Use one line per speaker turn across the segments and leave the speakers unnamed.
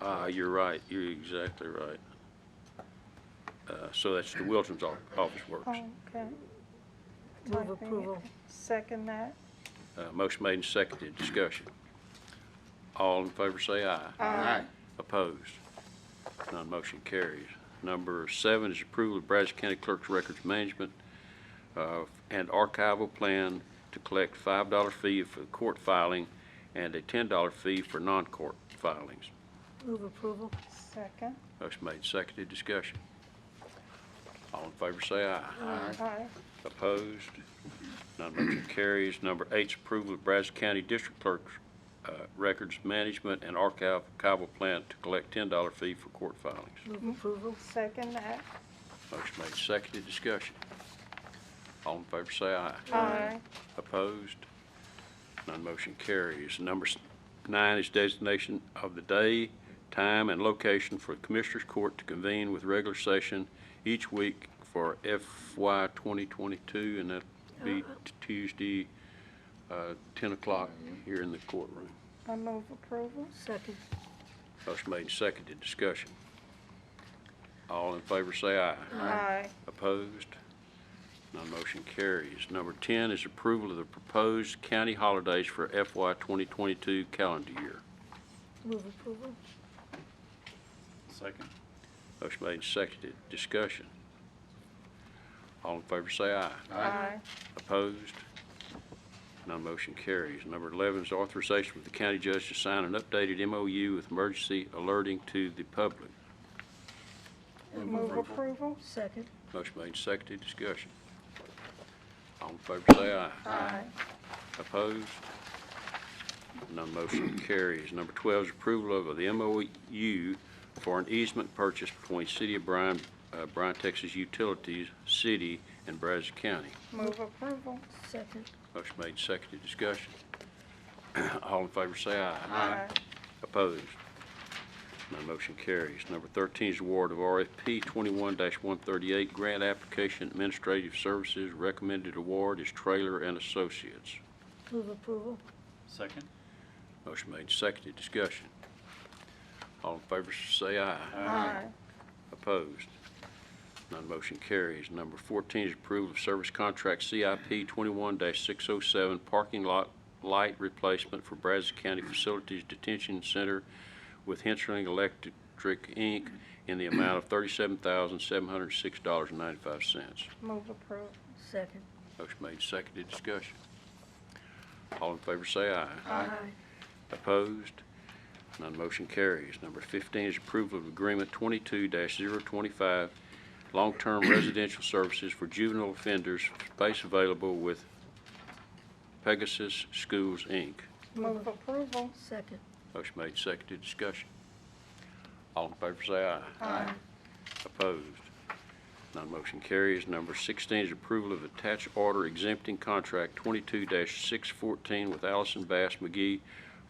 Ah, you're right, you're exactly right. Uh, So that's the Wilton's o- Office Works.
Oh, Okay.
Move
Typing it.
approval.
Second that.
Uh, Motion made and seconded, discussion. All in favor say aye. Aye. Opposed? None motion carries. Number seven is approval of Brazos County Clerk's Records Management uh, and Archival Plan to collect $5 fee for court filing and a $10 fee for non-court filings.
Move approval.
Second.
Motion made, and seconded, discussion. All in favor say aye.
Aye.
Opposed? None motion carries. Number eight's approval of Brazos County District Clerk's uh, Records Management and Archival Plant to collect $10 fee for court filings.
Move approval.
Second that.
Motion made, and seconded, discussion. All in favor say aye.
Aye.
Opposed? None motion carries. Number s- nine is designation of the day, time, and location for Commissioners Court to convene with regular session each week for FY 2022, and that be t- Tuesday, uh, 10 o'clock here in the courtroom.
I move approval.
Second.
Motion made and seconded. Discussion. All in favor say aye.
Aye.
Opposed? None motion carries. Number 10 is approval of the proposed county holidays for FY 2022 calendar year.
Move approval.
Second.
Motion made and seconded. Discussion. All in favor say aye.
Aye.
Opposed? None motion carries. Number 11 is authorization for the county judge to sign an updated MOU with emergency alerting to the public.
Move approval.
Second.
Motion made and seconded. Discussion. All in favor say aye.
Aye.
Opposed? None motion carries. Number 12 is approval of the MOU for an easement purchase between City of Bryan, uh, Bryan, Texas Utilities, City, and Brazos County.
Move approval.
Second.
Motion made, seconded, discussion. All in favor say aye.
Aye.
Opposed? None motion carries. Number 13 is award of RFP 21-138 Grant Application Administrative Services. Recommended award is Trailer and Associates.
Move approval.
Second.
Motion made, seconded, discussion. All in favor say aye.
Aye.
Opposed? None motion carries. Number 14 is approval of service contract CIP 21-607 parking lot light replacement for Brazos County Facilities Detention Center with Hensling Electric, Inc. in the amount of $37,706.95.
Move approval.
Second.
Motion made, seconded, discussion. All in favor say aye.
Aye.
Opposed? None motion carries. Number 15 is approval of Agreement 22-025, long-term residential services for juvenile offenders, space available with Pegasus Schools, Inc.
Move approval.
Second.
Motion made, seconded, discussion. All in favor say aye.
Aye.
Opposed? None motion carries. Number 16 is approval of attached order exempting contract 22-614 with Allison Bass McGee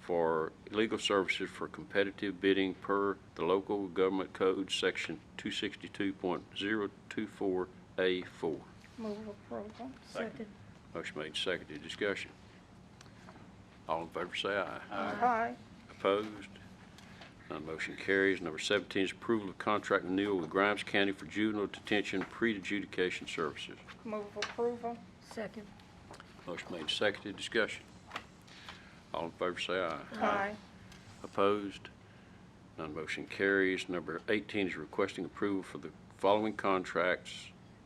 for legal services for competitive bidding per the local government code, section 262.024A4.
Move approval.
Second.
Motion made, seconded, discussion. All in favor say aye.
Aye.
Opposed? None motion carries. Number 17 is approval of contract renewal with Grimes County for juvenile detention pre-adjudication services.
Move approval.
Second.
Motion made, and seconded, discussion. All in favor say aye.
Aye.
Opposed? None motion carries. Number 18 is requesting approval for the following contracts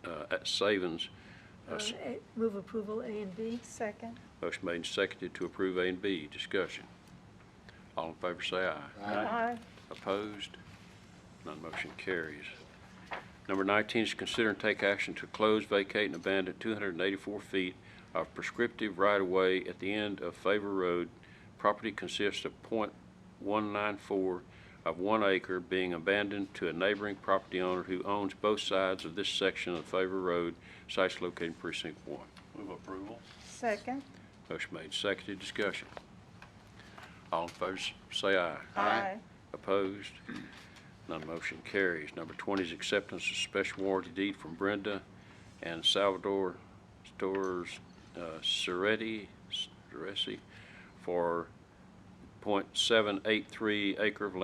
uh, at Savings.
Uh, A- Move approval A and B.
Second.
Motion made, and seconded to approve A and B, discussion. All in favor say aye.
Aye.
Opposed? None motion carries. Number 19 is consider and take action to close, vacate, and abandon 284 feet of prescriptive right-of-way at the end of Favor Road. Property consists of .194 of one acre being abandoned to a neighboring property owner who owns both sides of this section of Favor Road, sites located in precinct 1.
Move approval.
Second.
Motion made, seconded, discussion. All in favor, s- say aye.
Aye.
Opposed? None motion carries. Number 20 is acceptance of special warranty deed from Brenda and Salvador Stores uh, Ceretti, Ceresi, for .783 acre of